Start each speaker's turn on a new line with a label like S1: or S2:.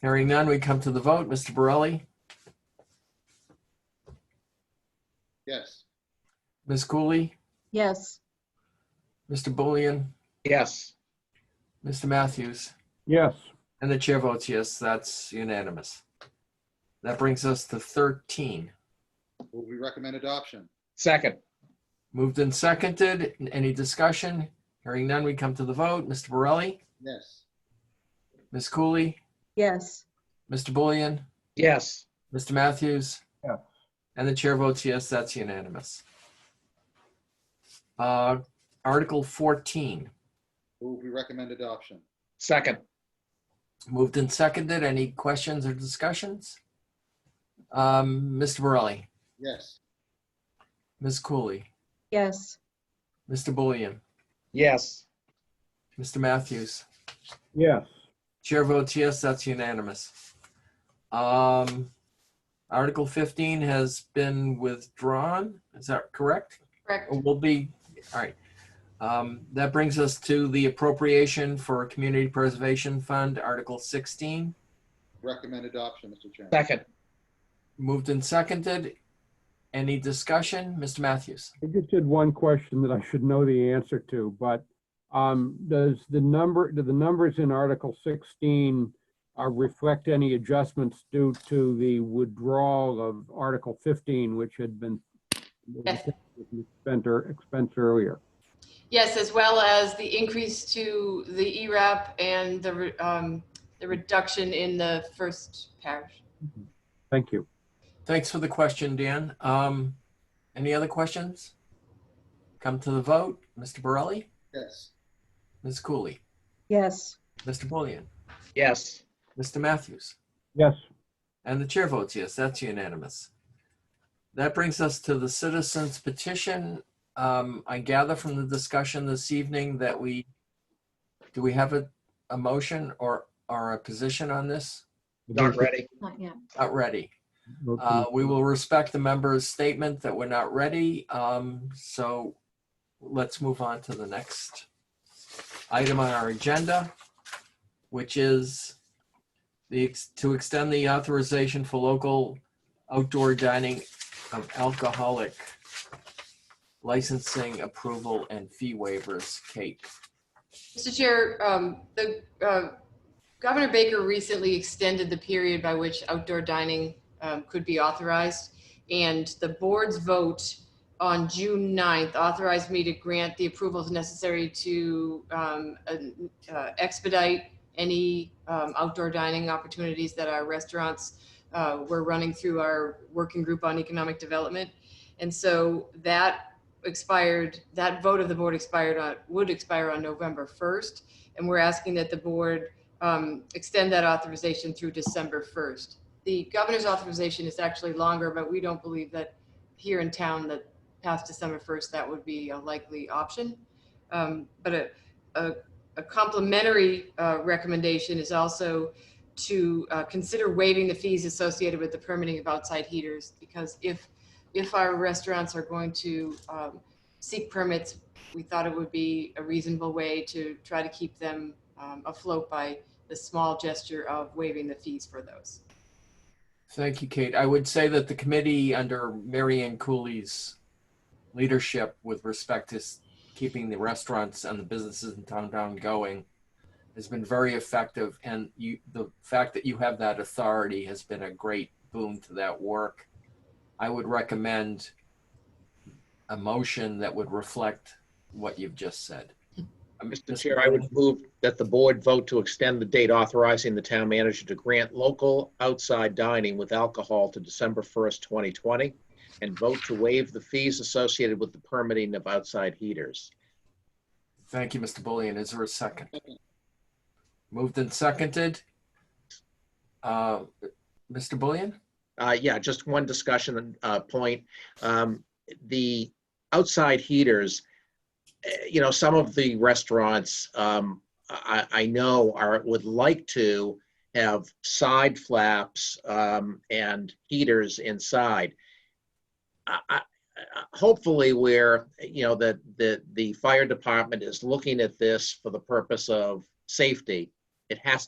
S1: Hearing none, we come to the vote. Mr. Borelli,
S2: Yes.
S1: Ms. Cooley,
S3: Yes.
S1: Mr. Bullion,
S2: Yes.
S1: Mr. Matthews,
S4: Yes.
S1: and the chair votes yes. That's unanimous. That brings us to 13.
S2: Will we recommend adoption?
S5: Second,
S1: Moved and seconded. Any discussion? Hearing none, we come to the vote. Mr. Borelli,
S2: Yes.
S1: Ms. Cooley,
S3: Yes.
S1: Mr. Bullion,
S5: yes.
S1: Mr. Matthews?
S4: Yes.
S1: And the chair votes yes, that's unanimous. Uh, Article 14,
S2: Will we recommend adoption?
S5: Second,
S1: moved and seconded. Any questions or discussions? Um, Mr. Borelli,
S2: Yes.
S1: Ms. Cooley,
S3: Yes.
S1: Mr. Bullion,
S5: yes.
S1: Mr. Matthews?
S4: Yes.
S1: Chair votes yes, that's unanimous. Um, Article 15 has been withdrawn, is that correct?
S6: Correct.
S1: Or Will be, all right. Um, That brings us to the appropriation for Community Preservation Fund, Article 16.
S2: Recommend adoption, Mr. Chairman.
S5: Second,
S1: Moved and seconded. Any discussion? Mr. Matthews?
S4: I just had one question that I should know the answer to, but um, does the number, do the numbers in Article 16 uh, reflect any adjustments due to the withdrawal of Article 15, which had been
S6: Yes.
S4: spent or expensed earlier?
S6: Yes, as well as the increase to the ERAP and the, re- um, the reduction in the first parish.
S4: Thank you.
S1: Thanks for the question, Dan. Um, Any other questions? Come to the vote. Mr. Borelli?
S2: Yes.
S1: Ms. Cooley?
S3: Yes.
S1: Mr. Bullion?
S5: yes.
S1: Mr. Matthews?
S4: Yes.
S1: And the chair votes yes, that's unanimous. That brings us to the citizens petition. Um, I gather from the discussion this evening that we, do we have a, a motion or, or a position on this?
S5: Not ready.
S3: Not yet.
S1: Not ready. Uh, we will respect the member's statement that we're not ready. Um, so let's move on to the next item on our agenda, which is the, ex- to extend the authorization for local outdoor dining of alcoholic licensing approval and fee waivers. Kate,
S6: Mr. Chair, um, the, uh, Governor Baker recently extended the period by which outdoor dining, um, could be authorized. And the board's vote on June 9th authorized me to grant the approvals necessary to, um, uh, expedite any, um, outdoor dining opportunities that our restaurants, uh, were running through our working group on economic development. And so that expired, that vote of the board expired on, would expire on November 1st. And we're asking that the board um, extend that authorization through December 1st. The governor's authorization is actually longer, but we don't believe that here in town that past December 1st, that would be a likely option. Um, But a, a- a complimentary uh, recommendation is also to uh, consider waiving the fees associated with the permitting of outside heaters. Because if if our restaurants are going to um, seek permits, we thought it would be a reasonable way to try to keep them um, afloat by the small gesture of waiving the fees for those.
S1: Thank you, Kate. I would say that the committee under Mary Ann Cooley's leadership with respect to s- keeping the restaurants and the businesses in downtown going has been very effective. And you, the fact that you have that authority has been a great boon to that work. I would recommend a motion that would reflect what you've just said. Um,
S5: Mr. Chair, I would move that the board vote to extend the date authorizing the town manager to grant local outside dining with alcohol to December 1st, 2020, and vote to waive the fees associated with the permitting of outside heaters.
S1: Thank you, Mr. Bullion. Is there a second? Moved and seconded. Uh, Mr. Bullion?
S5: Uh, yeah, just one discussion uh, point. Um, the outside heaters, eh, you know, some of the restaurants um, I, I know are would like to have side flaps um, and heaters inside. I, I, I- hopefully, where you know that the the fire department is looking at this for the purpose of safety, it has